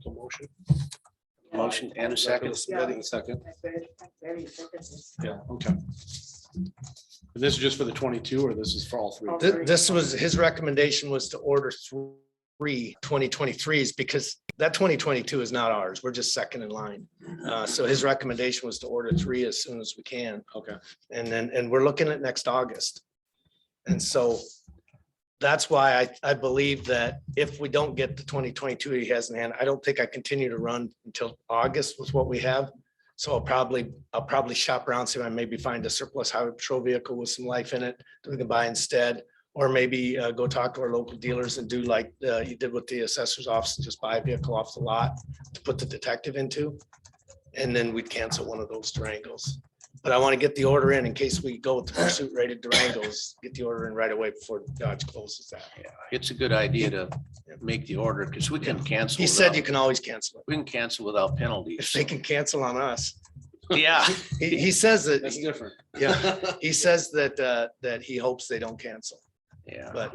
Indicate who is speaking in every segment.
Speaker 1: So motion. Motion and a second.
Speaker 2: Yeah.
Speaker 1: Second.
Speaker 2: Very focused.
Speaker 1: Yeah, okay. And this is just for the twenty-two, or this is for all three?
Speaker 2: All
Speaker 3: Th- This was, his recommendation was to order three 2023s because that twenty twenty-two is not ours. We're just second in line. Uh, so his recommendation was to order three as soon as we can.
Speaker 1: Okay,
Speaker 3: And then, and we're looking at next August. And so that's why I, I believe that if we don't get the twenty twenty-two he has in hand, I don't think I continue to run until August with what we have. So I'll probably, I'll probably shop around, see if I maybe find a surplus highway patrol vehicle with some life in it that we can buy instead. Or maybe uh, go talk to our local dealers and do like uh, you did with the assessor's office, and just buy a vehicle off the lot to put the detective into. And then we'd cancel one of those Durangos. But I want to get the order in in case we go with the pursuit rated Durangos, get the order in right away before Dodge closes that.
Speaker 4: It's a good idea to make the order because we can cancel.
Speaker 3: He said
Speaker 4: without-
Speaker 3: you can always cancel it.
Speaker 4: We can cancel without
Speaker 3: If
Speaker 4: penalties.
Speaker 3: they can cancel on us.
Speaker 4: Yeah.
Speaker 3: He, he says
Speaker 1: that's
Speaker 3: that,
Speaker 1: different.
Speaker 3: yeah, he says that, uh, that he hopes they don't cancel,
Speaker 4: Yeah.
Speaker 3: but,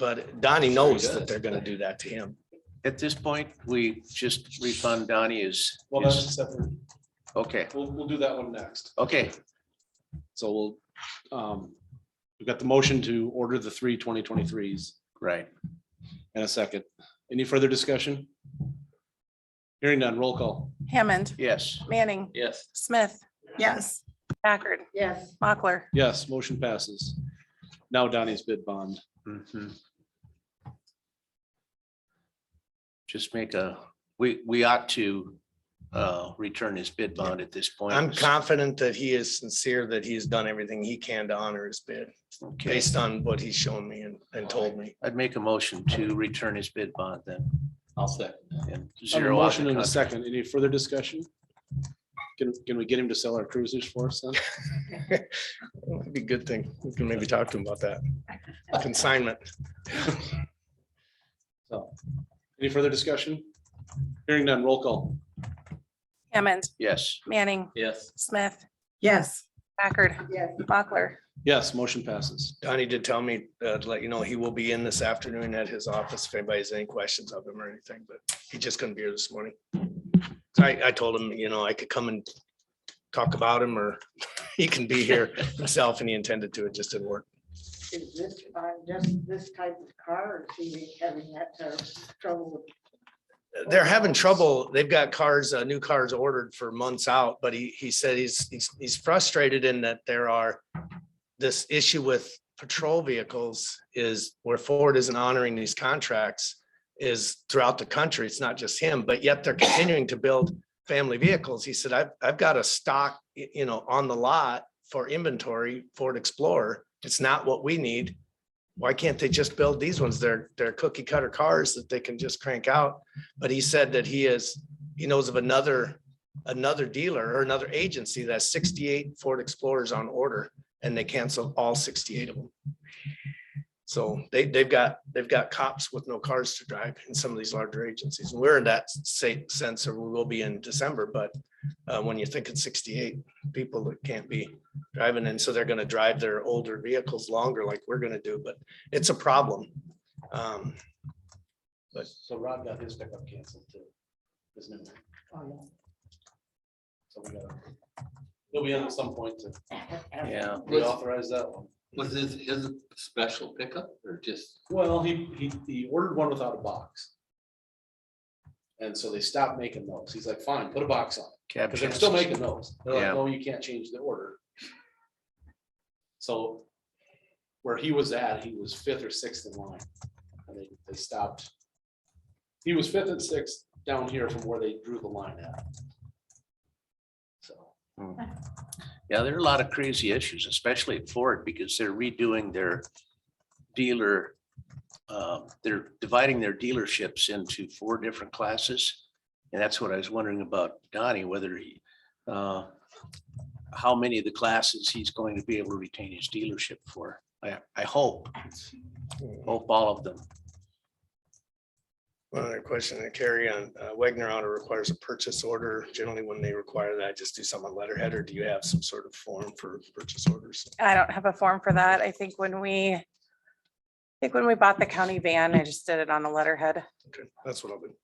Speaker 3: but Donnie knows that they're gonna do that to him.
Speaker 4: At this point, we just refund Donnie is,
Speaker 1: Well, that's a separate,
Speaker 4: okay,
Speaker 1: we'll, we'll do that one next.
Speaker 4: okay.
Speaker 1: So we'll, um, we've got the motion to order the three 2023s
Speaker 4: Right.
Speaker 1: and a second. Any further discussion? Hearing none, roll call.
Speaker 5: Hammond,
Speaker 4: Yes.
Speaker 5: Manning,
Speaker 4: Yes.
Speaker 5: Smith. Yes. Packard,
Speaker 2: Yes,
Speaker 5: Mochler,
Speaker 1: Yes, motion passes. Now Donnie's bid bond.
Speaker 4: Mm-hmm. Just make a, we, we ought to uh, return his bid bond at this point.
Speaker 3: I'm confident that he is sincere, that he has done everything he can to honor his bid,
Speaker 4: Okay.
Speaker 3: based on what he's shown me and, and told me.
Speaker 4: I'd make a motion to return his bid bond then.
Speaker 1: I'll second. I
Speaker 4: and
Speaker 1: have a
Speaker 4: Zero out
Speaker 1: motion
Speaker 4: the
Speaker 1: and a
Speaker 4: contract.
Speaker 1: second. Any further discussion? Can, can we get him to sell our cruisers for us then?
Speaker 3: It'd be a good thing. We can maybe talk to him about that. Consignment.
Speaker 1: So, any further discussion? Hearing none, roll call.
Speaker 5: Hammond,
Speaker 4: Yes.
Speaker 5: Manning,
Speaker 1: Yes.
Speaker 5: Smith,
Speaker 6: Yes,
Speaker 5: Packard,
Speaker 2: yes,
Speaker 5: Mochler,
Speaker 1: Yes, motion passes.
Speaker 3: Donnie did tell me, uh, to let you know, he will be in this afternoon at his office if anybody has any questions of him or anything, but he just couldn't be here this morning. So I, I told him, you know, I could come and talk about him or he can be here himself and he intended to, it just didn't work.
Speaker 2: is this, uh, just this type of car, or is he having that uh, trouble with?
Speaker 3: They're having trouble. They've got cars, uh, new cars ordered for months out, but he, he said he's, he's, he's frustrated in that there are this issue with patrol vehicles is where Ford isn't honoring these contracts is throughout the country. It's not just him, but yet they're continuing to build family vehicles. He said, I've, I've got a stock, y- you know, on the lot for inventory Ford Explorer. It's not what we need. Why can't they just build these ones? They're, they're cookie cutter cars that they can just crank out. But he said that he is, he knows of another, another dealer or another agency that's sixty-eight Ford Explorers on order and they canceled all sixty-eight of them. So they, they've got, they've got cops with no cars to drive in some of these larger agencies. And We're in that same sense or we will be in December, but uh, when you think it's sixty-eight people that can't be driving and so they're gonna drive their older vehicles longer like we're gonna do, but it's a problem. Um,
Speaker 1: So Rod got his pickup canceled too. Isn't it?
Speaker 2: oh,
Speaker 1: So we gotta- He'll be in at some point to
Speaker 4: Yeah.
Speaker 1: reauthorize that one.
Speaker 7: Was his, his special pickup or just,
Speaker 1: Well, he, he, he ordered one without a box. And so they stopped making those. He's like, fine, put a box on.
Speaker 4: Cab
Speaker 1: Because they're still
Speaker 4: chances.
Speaker 1: making those. They're like,
Speaker 4: Yeah.
Speaker 1: no, you can't change the order. So where he was at, he was fifth or sixth in line. And they, they stopped. He was fifth and sixth down here from where they drew the line at. So,
Speaker 4: Yeah, there are a lot of crazy issues, especially at Ford, because they're redoing their dealer. um, They're dividing their dealerships into four different classes. And that's what I was wondering about Donnie, whether he, uh, how many of the classes he's going to be able to retain his dealership for. I, I hope, hope all of them.
Speaker 3: One other question to carry on, uh, Wagner Auto requires a purchase order. Generally, when they require that, just do some on letterhead, or do you have some sort of form for purchase orders?
Speaker 5: I don't have a form for that. I think when we, I think when we bought the county van, I just did it on a letterhead.
Speaker 3: Okay, That's what I'll do.